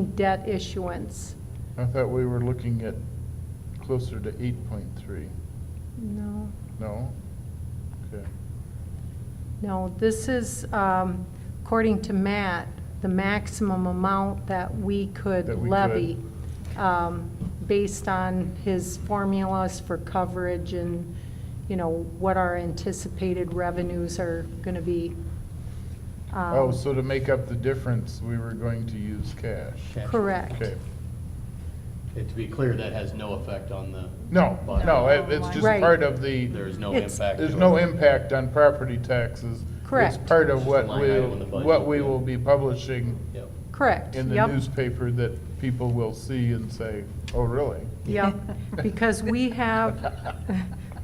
debt issuance. I thought we were looking at closer to eight point three. No, No? Okay. no, this is, um, according to Matt, the maximum amount that we could That we could. levy um, based on his formulas for coverage and, you know, what our anticipated revenues are going to be. Um, Oh, so to make up the difference, we were going to use cash. Cash. Correct. Okay. And to be clear, that has no effect on the. No, bottom no, line. it- it's just Right. part of the, There is no It's- impact. there's to no it. impact on property taxes. Correct. It's part It's of just a what line we, item in the budget, what we yeah. will be publishing Yep. Correct, in the Yep. newspaper that people will see and say, oh, really? Yep, because we have,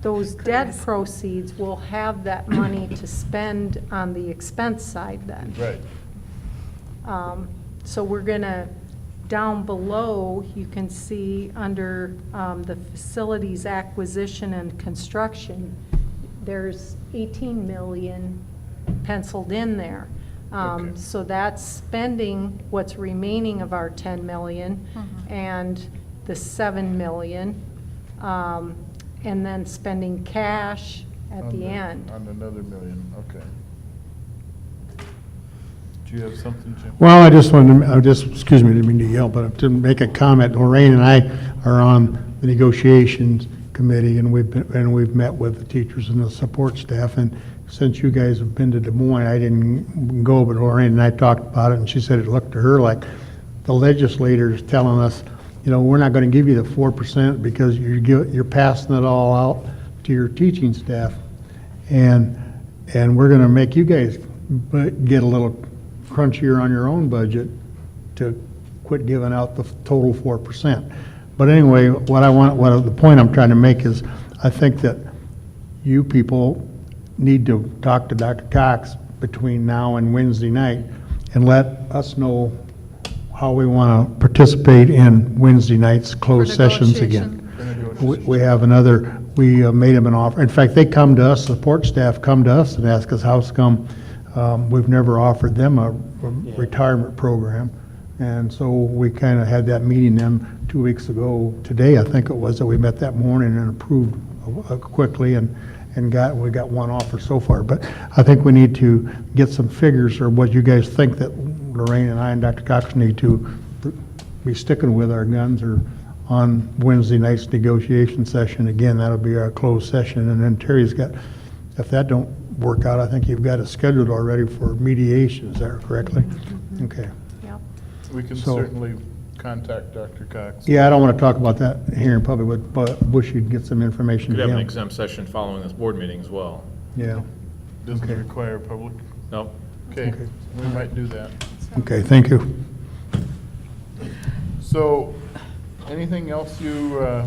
those debt proceeds, we'll have that money to spend on the expense side then. Right. Um, So we're gonna, down below, you can see under um, the facilities acquisition and construction, there's 18 million penciled in there. Um, Okay. So that's spending what's remaining of our 10 million Mm-hmm. and the 7 million, um, and then spending cash at On the end. On another million, okay. Do you have something, Jim? Well, I just wanted, to I just, excuse me, didn't mean to yell, but to make a comment, Lorraine and I are on the negotiations committee, and we've, been- and we've met with the teachers and the support staff, and since you guys have been to Des Moines, I didn't go, but Lorraine and I talked about it, and she said it looked to her like the legislators telling us, you know, we're not gonna give you the four percent because you're, gi- you're passing it all out to your teaching staff. And, and we're gonna make you guys bu- get a little crunchier on your own budget to quit giving out the total four percent. But anyway, what I want, what, the point I'm trying to make is, I think that you people need to talk to Dr. Cox between now and Wednesday night and let us know how we want to participate in Wednesday night's closed sessions again. For negotiations. We- We have another, we uh, made them an offer. In fact, they come to us, support staff come to us and ask us, how's come, um, we've never offered them a retirement program. And so we kind of had that meeting them two weeks ago, today, I think it was, that we met that morning and approved uh, quickly and, and got, we got one offer so far. But I think we need to get some figures or what you guys think that Lorraine and I and Dr. Cox need to be sticking with our guns or on Wednesday night's negotiation session, again, that'll be our closed session, and then Terry's got, if that don't work out, I think you've got it scheduled already for mediation, is that correctly? Okay. Yep. We can So- certainly contact Dr. Cox. Yeah, I don't want to talk about that here in public, but, but wish you'd get some information Could to have an him. exempt session following this board meeting as well. Yeah, Doesn't Okay. require public. No, Okay, Okay. we might do that. okay, thank you. So, anything else you, uh,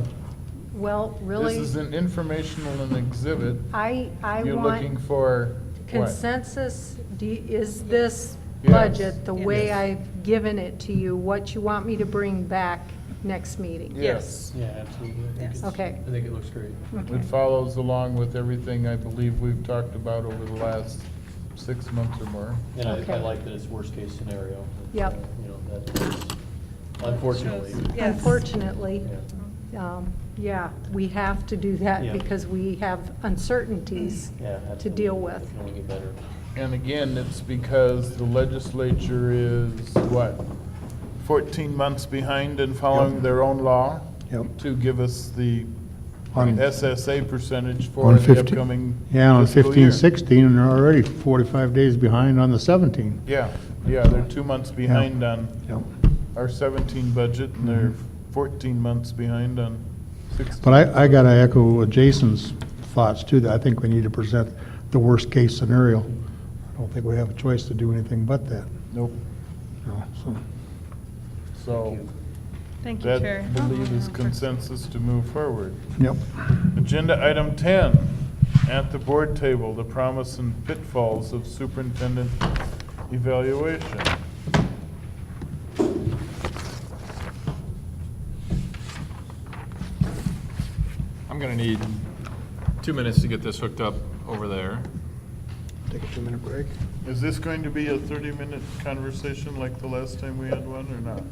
Well, really. Ah, this is an informational and exhibit. I, I You're looking want for what? consensus, Do you- is this Yes. budget the way Yes. I've given it to you, what you want me to bring back next meeting? Yes, Yeah, absolutely. I think Yes. it's- Okay. I think it looks great. it follows along with everything I believe we've talked about over the last six months or more. And I, I Okay. like that it's worst-case scenario. It's, Yep. uh, You know, that is, unfortunately. Yes. Unfortunately, Yeah. um, yeah, we have to do that Yeah. because we have uncertainties Yeah, to absolutely. deal It with. can only get better. And again, it's because the legislature is, what, 14 months behind in following Yep. their own law? Yep. To give us the On- SSA percentage for On the 15 upcoming Yeah, on fiscal fifteen, year. sixteen, and they're already forty-five days behind on the seventeen. Yeah, yeah, they're two months behind on Yep. Mm-hmm. our 17 budget, and they're 14 months behind on 16. But I, I gotta echo Jason's thoughts too, that I think we need to present the worst-case scenario. I don't think we have a choice to do anything but that, Nope, you know, so. so Thank you, that, Chair. believe, is consensus to move forward. Yep. Agenda item 10, at the board table, the promise and pitfalls of superintendent evaluation. I'm gonna need two minutes to get this hooked up over there. Take a two-minute break. Is this going to be a 30-minute conversation like the last time we had one, or not?